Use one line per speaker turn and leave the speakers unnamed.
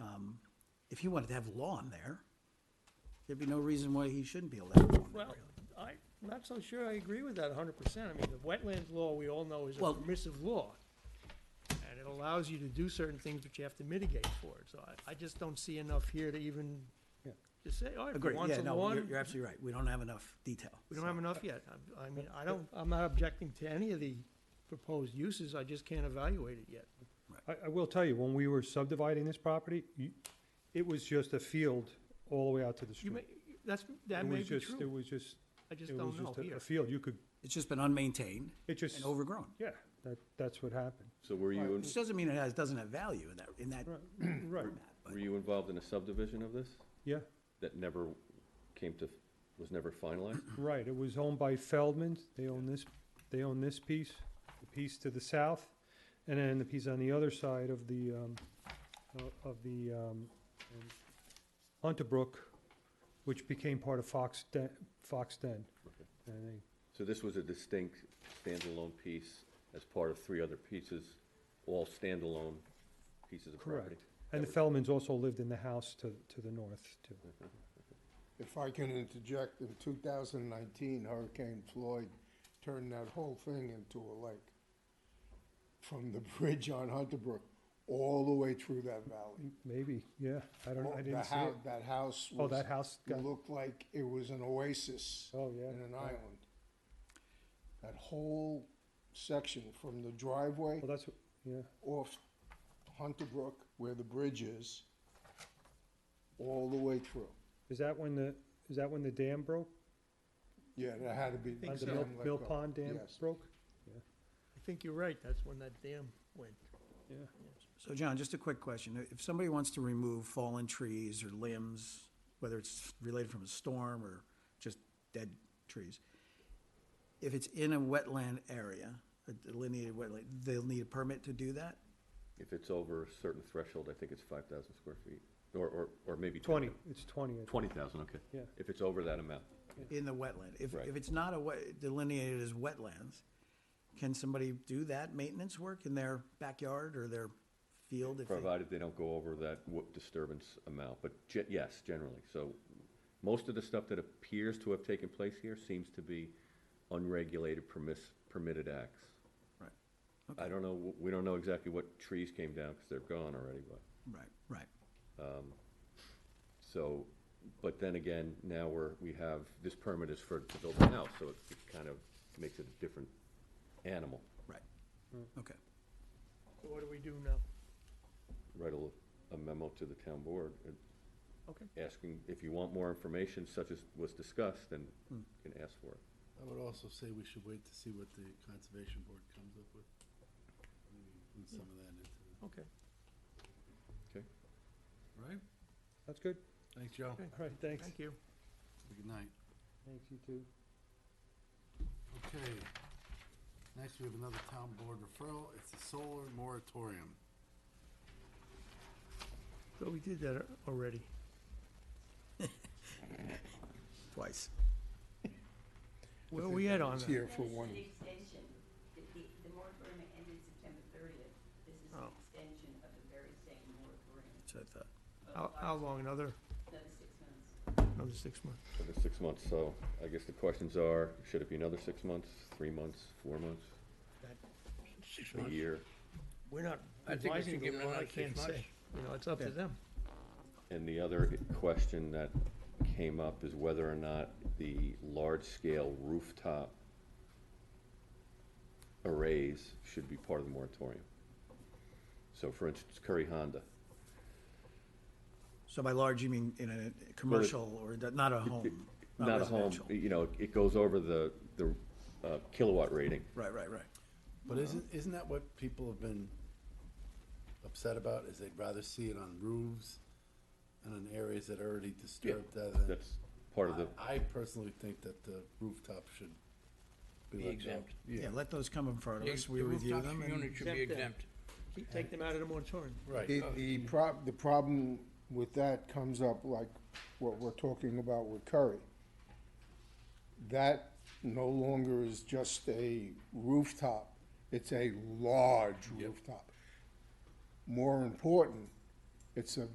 Um, If you wanted to have lawn there, there'd be no reason why he shouldn't be allowed lawn there,
Well,
really.
I'm not so sure I agree with that hundred percent. I mean, the wetlands law, we all know, is a
Well-
permissive law. And it allows you to do certain things, but you have to mitigate for it. So I, I just don't see enough here to even just say, oh, if you
Agree,
want
yeah,
some
no, you're,
lawn,
you're absolutely right, we don't have enough detail.
we don't have enough yet. I'm- I mean, I don't, I'm not objecting to any of the proposed uses. I just can't evaluate it yet.
I, I will tell you, when we were subdividing this property, you, it was just a field all the way out to the
You may,
street.
that's, that
It
may
was
be
just- It
true.
was just,
I just
it was
don't know
just a-
here.
a field, you could,
It's just been unmaintained
it just,
and overgrown,
yeah, that, that's what happened.
So were you, in-
which doesn't mean it has, doesn't have value in that, in that
Right, right,
format, but
were you involved in a subdivision of this
yeah,
that never came to, was never finalized?
right, it was owned by Feldman, they own this, they own this piece, the piece to the south, and then the piece on the other side of the, um, o- of the, um, um, Hunter Brook, which became part of Fox Den, Fox Den.
Okay.
And they
So this was a distinct standalone piece as part of three other pieces, all standalone pieces of property?
Correct. And the Feldmans also lived in the house to, to the north, too.
If I can interject, in 2019, Hurricane Floyd turned that whole thing into a lake. From the bridge on Hunter Brook, all the way through that valley.
Maybe, yeah, I don't, I
The
didn't see it.
hou- That house
Oh,
was.
that house got-
Looked like it was an oasis.
Oh, yeah,
In an
yeah.
island. That whole section from the driveway
Well, that's, what- yeah,
off Hunter Brook, where the bridge is, all the way through.
is that when the, is that when the dam broke?
Yeah, that had to be.
Uh,
Think so.
The Mill,
dam let
Mill
go.
Pond Dam
Yes.
broke?
I think you're right. That's when that dam went.
Yeah,
So John, just a quick question. If somebody wants to remove fallen trees or limbs, whether it's related from a storm or just dead trees, if it's in a wetland area, a delineated wetland, they'll need a permit to do that?
If it's over a certain threshold, I think it's five thousand square feet, or, or, or maybe.
twenty, it's twenty. I think.
Twenty thousand, okay.
Yeah.
If it's over that amount,
In the wetland? If,
Right.
if it's not a wet, delineated as wetlands, can somebody do that maintenance work in their backyard or their field? if they-
provided they don't go over that wo- disturbance amount, but ge- yes, generally. So most of the stuff that appears to have taken place here seems to be unregulated permiss, permitted acts.
Right,
I don't know, w- we don't know exactly what trees came down, because they're gone already, but,
right, right.
so, but then again, now we're, we have, this permit is for to build a house, so it it kind of makes it a different animal,
Right, okay.
So what do we do now?
write a, l- a memo to the town board, and
Okay.
asking if you want more information such as was discussed, then you can ask for it.
I would also say we should wait to see what the conservation board comes up with. Maybe include some of that into, it.
Okay.
Okay.
right?
That's good.
Thanks, Joe.
Okay.
All right, thanks.
Thank you.
Good night.
Thanks, you too.
Okay. Next, we have another town board referral. It's a solar moratorium.
So we did that a- already.
Twice.
Where are we at on
It's
that?
here for one.
This is an extension. The, the- the moratorium ended September thirtieth. This is an
Oh.
extension of the very same moratorium,
So I thought,
uh, How, how long? Another,
another six months.
another six months?
So there's six months, so I guess the questions are, should it be another six months, three months, four months,
Six
a year?
We're not
I think we
advising
should give
them,
it
what I
another six
can't say. You know, it's up to them.
And the other question that came up is whether or not the large-scale rooftop arrays should be part of the moratorium. So for instance, Curry Honda,
So by large, you mean in a commercial or d- not a home?
not a home,
residential.
you know, it goes over the, the uh, kilowatt rating.
Right, right, right.
But isn't, isn't that what people have been upset about, is they'd rather see it on roofs and in areas that are already disturbed rather than.
That's part of the,
I I personally think that the rooftop should be let go.
exempt.
Yeah, let those come in front of
The-
us, we
the
review
rooftop
them, and
Unit should be exempt.
Keep- Take them out of the moratorium.
Right.
The, the prob, the problem with that comes up like what we're talking about with Curry. That no longer is just a rooftop, it's a large rooftop. More important, it's a